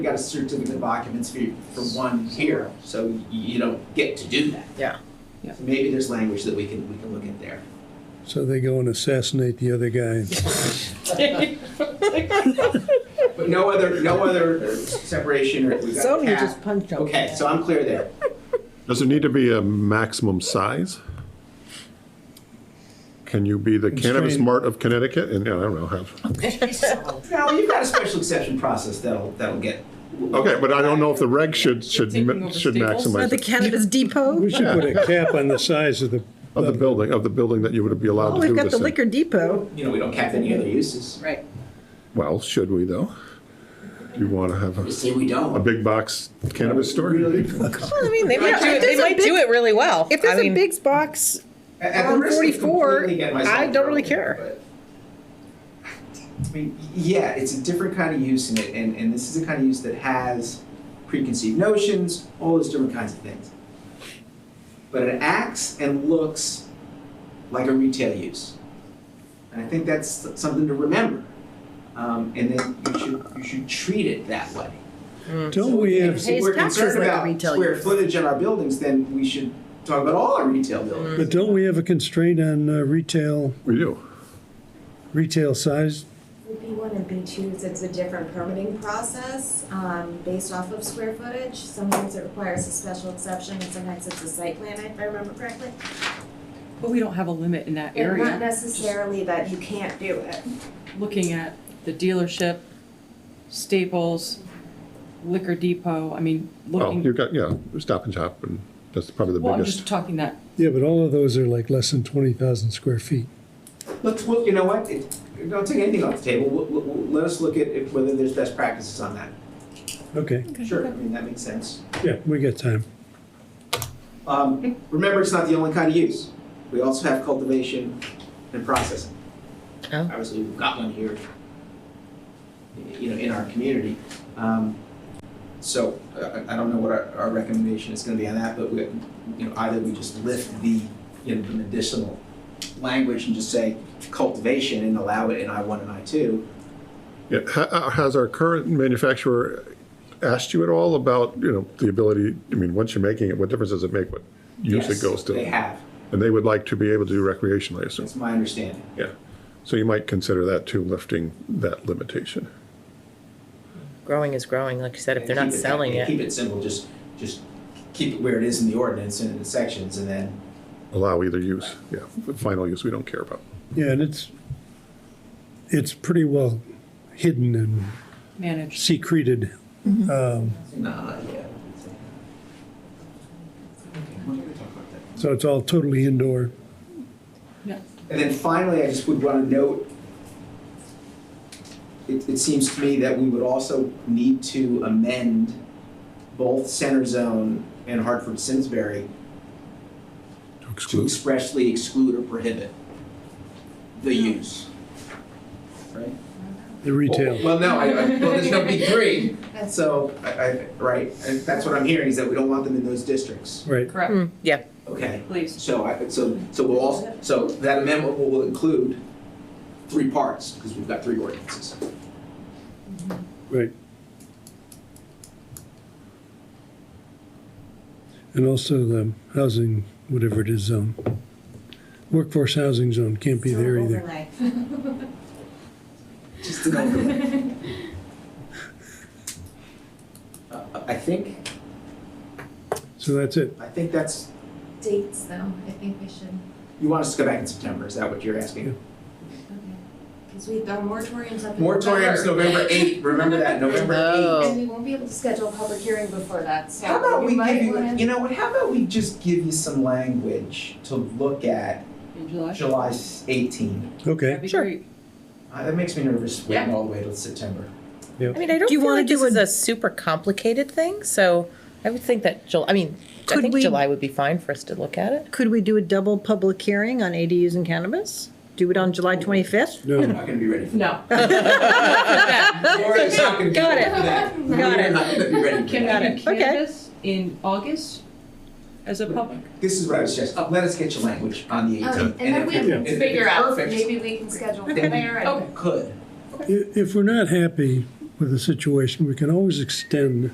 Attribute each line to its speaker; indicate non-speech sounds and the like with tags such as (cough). Speaker 1: You got a certificate of occupancy for one here, so y- you don't get to do that.
Speaker 2: Yeah. Yeah.
Speaker 1: So Maybe there's language that we can, we can look at there.
Speaker 3: So they go and assassinate the other
Speaker 4: (laughs)
Speaker 3: guy.
Speaker 1: But no other, no other uh, separation or we got a
Speaker 2: Zoning
Speaker 1: cap.
Speaker 2: just punched him.
Speaker 1: Okay, so I'm clear there.
Speaker 4: Does it need to be a maximum size? Can you be the cannabis
Speaker 3: Constrained.
Speaker 4: mart of Connecticut and, I don't know, have,
Speaker 5: (laughs)
Speaker 1: Now, you've got a special exception process that'll, that'll get,
Speaker 4: okay, but I don't know if the reg should, should,
Speaker 5: Taking
Speaker 4: ma-
Speaker 5: over
Speaker 4: should
Speaker 5: Staples?
Speaker 2: At
Speaker 4: maximize
Speaker 2: the
Speaker 4: it.
Speaker 2: cannabis depot?
Speaker 3: We should put a cap on the size of the,
Speaker 4: Of the building, of the building that you would be
Speaker 2: Oh,
Speaker 4: allowed to do
Speaker 2: we've got
Speaker 4: this
Speaker 2: the
Speaker 4: in.
Speaker 2: liquor depot.
Speaker 1: you know, we don't cap any other uses.
Speaker 5: Right.
Speaker 4: Well, should we though? Do you want to have
Speaker 1: You
Speaker 4: a,
Speaker 1: say we
Speaker 4: a
Speaker 1: don't.
Speaker 4: big box cannabis store?
Speaker 1: Really?
Speaker 2: Well, I mean, they might,
Speaker 5: do it-
Speaker 2: if
Speaker 5: they
Speaker 2: there's a
Speaker 5: might do
Speaker 2: big,
Speaker 5: it really well.
Speaker 2: if there's
Speaker 5: I mean,
Speaker 2: a big box,
Speaker 1: At- at the
Speaker 2: On
Speaker 1: risk of
Speaker 2: 44,
Speaker 1: completely getting myself
Speaker 2: I
Speaker 1: in
Speaker 2: don't really
Speaker 1: trouble,
Speaker 2: care.
Speaker 1: but- I mean, yeah, it's a different kind of use in it, and, and this is a kind of use that has preconceived notions, all those different kinds of things. But it acts and looks like a retail use. And I think that's something to remember. Um, and then you should, you should treat it that way.
Speaker 3: don't we have,
Speaker 1: If we're
Speaker 2: Pays taxes
Speaker 1: concerned
Speaker 2: like a
Speaker 1: about
Speaker 2: retail
Speaker 1: square
Speaker 2: use.
Speaker 1: footage in our buildings, then we should talk about all our retail buildings.
Speaker 3: but don't we have a constraint on uh, retail,
Speaker 4: We do.
Speaker 3: retail size?
Speaker 6: B1 and B2s, it's a different permitting process um, based off of square footage. Sometimes it requires a special exception, and sometimes it's a site plan, if I remember correctly.
Speaker 5: but we don't have a limit in that
Speaker 6: But not
Speaker 5: area.
Speaker 6: necessarily that you can't do it.
Speaker 5: Looking at the dealership, Staples, Liquor Depot, I mean,
Speaker 4: Well,
Speaker 5: looking,
Speaker 4: you've got, yeah, Stop and Shop and that's probably the
Speaker 5: well, I'm just
Speaker 4: biggest.
Speaker 5: talking that,
Speaker 3: Yeah, but all of those are like less than twenty thousand square feet.
Speaker 1: Let's look, you know what, it, don't take anything off the table, We'll- we'll- we'll- let us look at if- whether there's best practices on that.
Speaker 3: Okay,
Speaker 1: Sure, I mean, that makes sense.
Speaker 3: yeah, we got time.
Speaker 1: Um, remember, it's not the only kind of use, we also have cultivation and processing.
Speaker 2: Oh.
Speaker 1: Obviously, we've got one here, you know, in our community. Um, so, I, I don't know what our, our recommendation is gonna be on that, but we, you know, either we just lift the, you know, the medicinal language and just say cultivation and allow it in I one and I two,
Speaker 4: Yeah, ha- uh, Has our current manufacturer asked you at all about, you know, the ability, I mean, once you're making it, what difference does it make what use it
Speaker 1: Yes,
Speaker 4: goes to?
Speaker 1: They have,
Speaker 4: And they would like to be able to do recreational, I assume.
Speaker 1: that's my understanding.
Speaker 4: Yeah. So you might consider that too, lifting that limitation.
Speaker 7: growing is growing, like you said, if
Speaker 1: And
Speaker 7: they're not
Speaker 1: keep it-
Speaker 7: selling
Speaker 1: and
Speaker 7: it.
Speaker 1: Keep it simple, just, just keep it where it is in the ordinance and in the sections and then.
Speaker 4: Allow either use, yeah. The Final use, we don't care about.
Speaker 3: Yeah, and it's, it's pretty well hidden and
Speaker 5: managed.
Speaker 3: secreted.
Speaker 4: Mm-hmm.
Speaker 3: Um,
Speaker 1: Nah, yeah.
Speaker 3: So it's all totally indoor.
Speaker 1: And then finally, I just would want to note, it, it seems to me that we would also need to amend both Center Zone and Hartford Simsbury
Speaker 4: To
Speaker 1: to
Speaker 4: exclude.
Speaker 1: expressly exclude or prohibit the use. Right?
Speaker 3: The
Speaker 4: Oh,
Speaker 3: retail.
Speaker 1: Well, no, I, I, well, there's no big three, so, I, I, right, and that's what I'm hearing, is that we don't want them in those districts,
Speaker 3: Right.
Speaker 5: Correct,
Speaker 7: Mm, yeah,
Speaker 1: okay?
Speaker 5: please.
Speaker 1: So I, so, so we'll also, so that amendment will- will include three parts, because we've got three ordinances.
Speaker 3: Right. And also the housing, whatever it is, zone. Workforce housing zone can't be
Speaker 6: So
Speaker 3: there either.
Speaker 6: overlay.
Speaker 1: Just an overlay. Uh, I think,
Speaker 3: So that's it.
Speaker 1: I think that's,
Speaker 6: Dates, though, I think we should,
Speaker 1: you want us to go back in September, is that what you're asking?
Speaker 6: okay. Because we've got moratoriums up in November.
Speaker 1: Moratorium's November eighth, remember that,
Speaker 6: (laughs)
Speaker 1: November eighth.
Speaker 7: Oh.
Speaker 6: And we won't be able to schedule a public hearing before that, so
Speaker 1: How about we
Speaker 6: you might
Speaker 1: give you,
Speaker 6: wanna-
Speaker 1: you know what, how about we just give you some language to look at
Speaker 5: In July?
Speaker 1: July eighteen?
Speaker 3: Okay.
Speaker 5: That'd be
Speaker 7: Sure.
Speaker 5: great.
Speaker 1: Uh, that makes me nervous waiting all the way till September.
Speaker 7: I mean, I don't
Speaker 2: Do you
Speaker 7: feel
Speaker 2: wanna
Speaker 7: like this
Speaker 2: do
Speaker 7: is a super complicated thing, so I would think that July, I mean, I
Speaker 2: Could
Speaker 7: think
Speaker 2: we-
Speaker 7: July would be fine for us to look at it.
Speaker 2: Could we do a double public hearing on ADUs and cannabis? Do it on July 25th?
Speaker 1: I'm
Speaker 3: No,
Speaker 1: not gonna be ready for
Speaker 2: (laughs)
Speaker 1: that.
Speaker 5: (laughs) No.
Speaker 1: Laura's not gonna be
Speaker 2: Got
Speaker 1: ready
Speaker 2: it.
Speaker 1: for that.
Speaker 2: Got
Speaker 1: We're
Speaker 2: it.
Speaker 1: not gonna be ready for
Speaker 5: Can
Speaker 1: that.
Speaker 5: we
Speaker 2: it.
Speaker 5: do
Speaker 2: Okay.
Speaker 5: cannabis in August as a public?
Speaker 1: This is what I was just, let us get your language on the eighteenth.
Speaker 6: Um, and then we can figure out, maybe we can schedule from
Speaker 1: Then we-
Speaker 6: there and.
Speaker 1: Could.
Speaker 3: I- if we're not happy with a situation, we can always extend